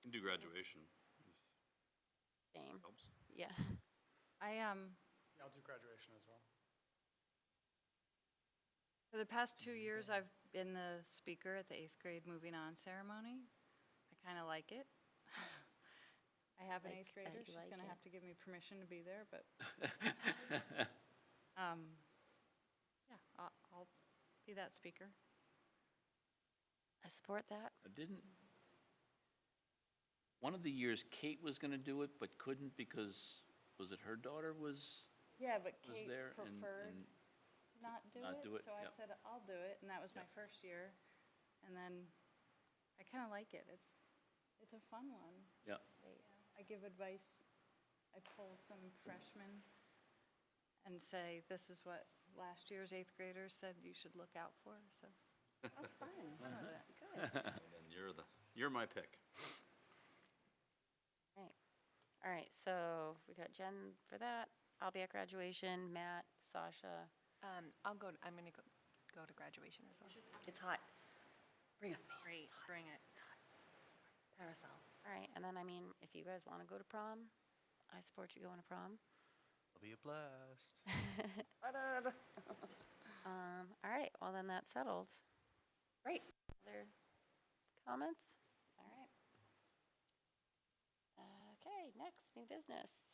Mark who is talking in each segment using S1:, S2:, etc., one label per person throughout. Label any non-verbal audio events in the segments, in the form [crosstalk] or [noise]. S1: Can do graduation, if
S2: Same,
S1: helps.
S2: yeah. [laughs]
S3: I, um,
S4: Yeah, I'll do graduation as well.
S3: for the past two years, I've been the speaker at the eighth grade moving on ceremony. I kind of like it. [laughs] I have an
S2: Like-
S3: eighth
S2: I
S3: grader, she's
S2: like
S3: gonna
S2: it.
S3: have to give me permission to be there,
S5: [laughs]
S3: but. [laughs] Um, Yeah, I'll, I'll be that speaker.
S2: I support that.
S5: I Didn't, one of the years Kate was going to do it, but couldn't because, was it her daughter was,
S3: Yeah, but
S5: was
S3: Kate
S5: there? and-
S3: preferred
S5: and-
S3: to not do
S5: not do it,
S3: it, so I
S5: yep.
S3: said, I'll do it, and that was my
S5: Yep.
S3: first year. And then, I kind of like it, it's, it's a fun one.
S5: Yeah,
S3: I give advice, I pull some freshmen and say, this is what last year's eighth graders said you should look out for, so.
S2: Oh, fun.
S3: fun with it.
S2: Good.
S1: And you're the, you're my pick.
S2: Right. All right, so we got Jen for that. I'll be at graduation, Matt, Sasha.
S6: Um, I'll go, I'm gonna go, go to graduation as well.
S2: It's hot.
S6: Bring a fan. Great, bring it. Parasol.
S2: All right, and then, I mean, if you guys want to go to prom, I support you going to prom.
S7: It'll be a blast.
S2: Um, all right, well, then that's settled. Great. Other comments? All right. Okay, next, new business.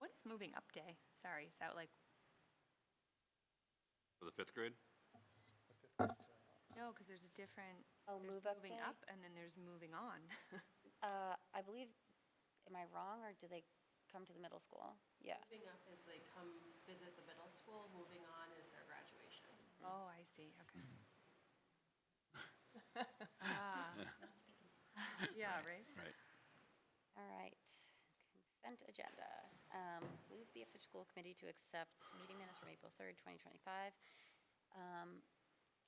S6: What is moving up day? Sorry, is that like,
S1: For the fifth grade?
S6: no, because there's a different.
S2: Oh,
S6: there's
S2: move up
S6: moving
S2: day?
S6: up and then there's moving on.
S2: Uh, I believe, am I wrong, or do they come to the middle school? Yeah.
S8: Moving up is they come visit the middle school, moving on is their graduation.
S6: Oh, I see, okay. Ah. Yeah, right?
S5: right.
S2: All right, consent agenda. Um, Move the Ipswich School Committee to accept meeting minutes from April 3rd, 2025. Um,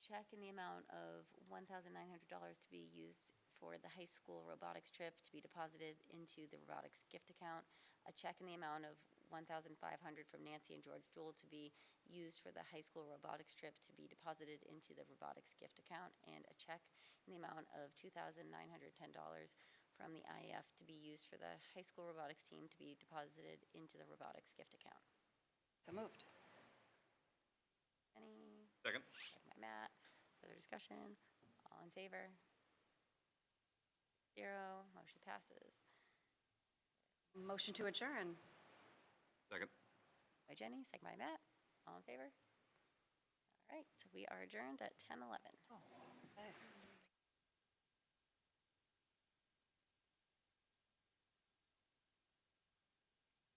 S2: Check in the amount of $1,900 to be used for the high school robotics trip to be deposited into the robotics gift account. A check in the amount of $1,500 from Nancy and George Jewell to be used for the high school robotics trip to be deposited into the robotics gift account. And a check in the amount of $2,910 from the IEF to be used for the high school robotics team to be deposited into the robotics gift account.
S3: So moved.
S2: Any,
S1: Second?
S2: second by Matt, further discussion? All in favor? Zero, motion passes.
S8: Motion to adjourn.
S1: Second.
S2: By Jenny, second by Matt, all in favor? All right, so we are adjourned at 10:11.